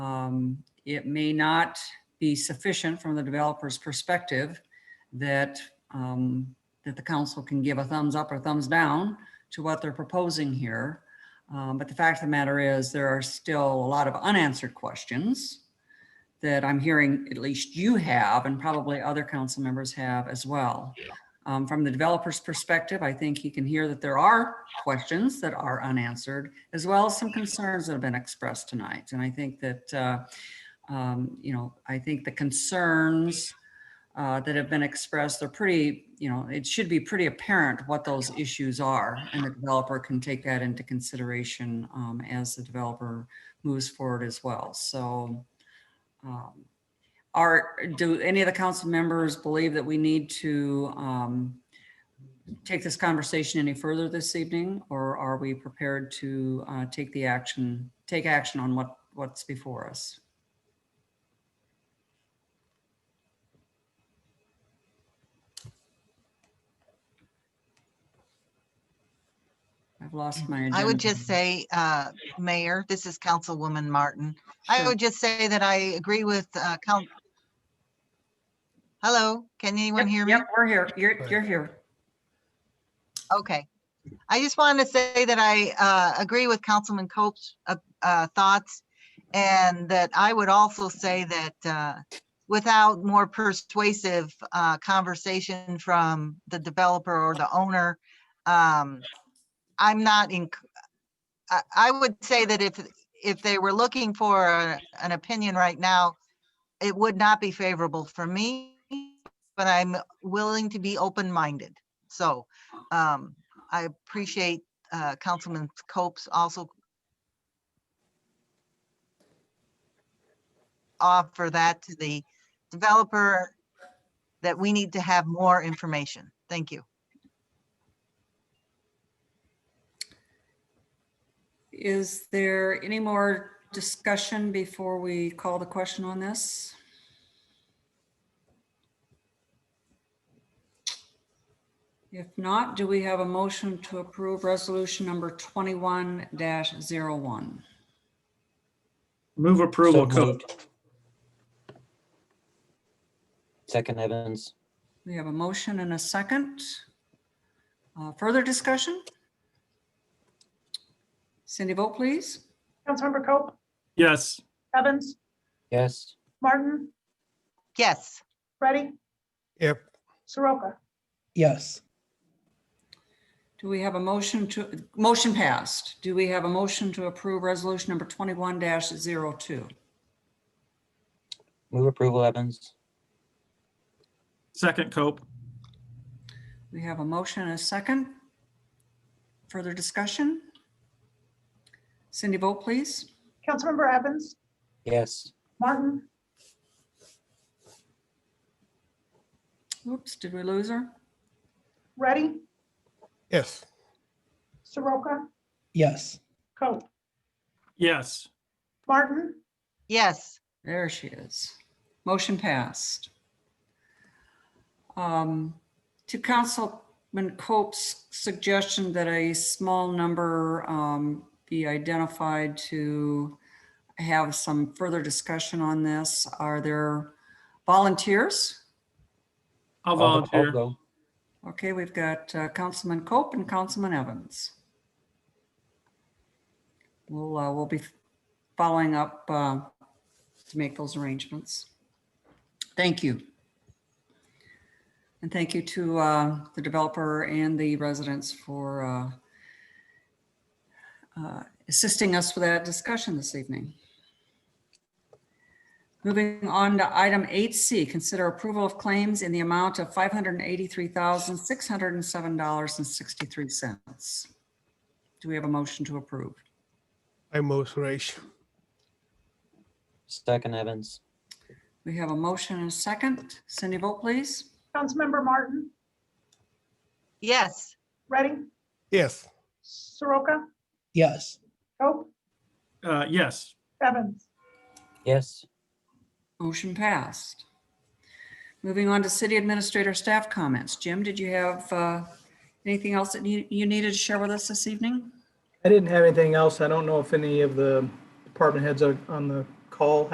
Um, it may not be sufficient from the developer's perspective that, um, that the council can give a thumbs up or thumbs down to what they're proposing here. Um, But the fact of the matter is, there are still a lot of unanswered questions that I'm hearing at least you have and probably other council members have as well. Um, From the developer's perspective, I think he can hear that there are questions that are unanswered, as well as some concerns that have been expressed tonight. And I think that, uh, um, you know, I think the concerns uh, that have been expressed, they're pretty, you know, it should be pretty apparent what those issues are. And the developer can take that into consideration um, as the developer moves forward as well. So um, are, do any of the council members believe that we need to um, take this conversation any further this evening? Or are we prepared to uh, take the action, take action on what, what's before us? I've lost my agenda. I would just say, uh, Mayor, this is Councilwoman Martin. I Sure. would just say that I agree with, uh, coun- Hello, can Yep, anyone hear me? Yep, we're here. You're, you're here. Okay. I just wanted to say that I, uh, agree with Councilman Cope's, uh, uh, thoughts. And that I would also say that, uh, without more persuasive, uh, conversation from the developer or the owner, um, I'm not in, I, I would say that if, if they were looking for a- an opinion right now, it would not be favorable for me, but I'm willing to be open-minded. So, um, I appreciate, uh, Councilman Cope's also offer that to the developer, that we need to have more information. Thank you. Is there any more discussion before we call the question on this? If not, do we have a motion to approve resolution number twenty-one dash zero one? Move approval, So Cope. moved. Second Evans, We have a motion and a second. Uh, Further discussion? Cindy, vote please. Councilmember Cope, Yes, Evans, yes. Martin, Yes. Ready, Yep. Soroka. Yes. Do we have a motion to, motion passed. Do we have a motion to approve resolution number twenty-one 2 Move approval Evans, second Cope. We have a motion and a second. Further discussion? Cindy, vote please. Councilmember Evans, yes. Martin, Oops, did we lose her? Ready, Yes. Soroka, Yes. Cope, Yes, Martin, Yes, There she is. Motion passed. Um, To Councilman Cope's suggestion that a small number um, be identified to have some further discussion on this, are there volunteers? I'll I'll- I'll volunteer. go. Okay, we've got uh, Councilman Cope and Councilman Evans. We'll, uh, we'll be following up uh, to make those arrangements. Thank you. And thank you to uh, the developer and the residents for uh, uh, assisting us with that discussion this evening. Moving on to item 8C, consider approval of claims in the amount of $583,607.63. Do we have a motion to approve? I move Suresh. Second Evans, We have a motion and a second. Cindy, vote please. Councilmember Martin, yes, Ready, Yes. Soroka, Yes. Cope, Uh, yes, Evans, yes. Motion passed. Moving on to city administrator staff comments. Jim, did you have uh, anything else that you you needed to share with us this evening? I didn't have anything else. I don't know if any of the department heads are on the call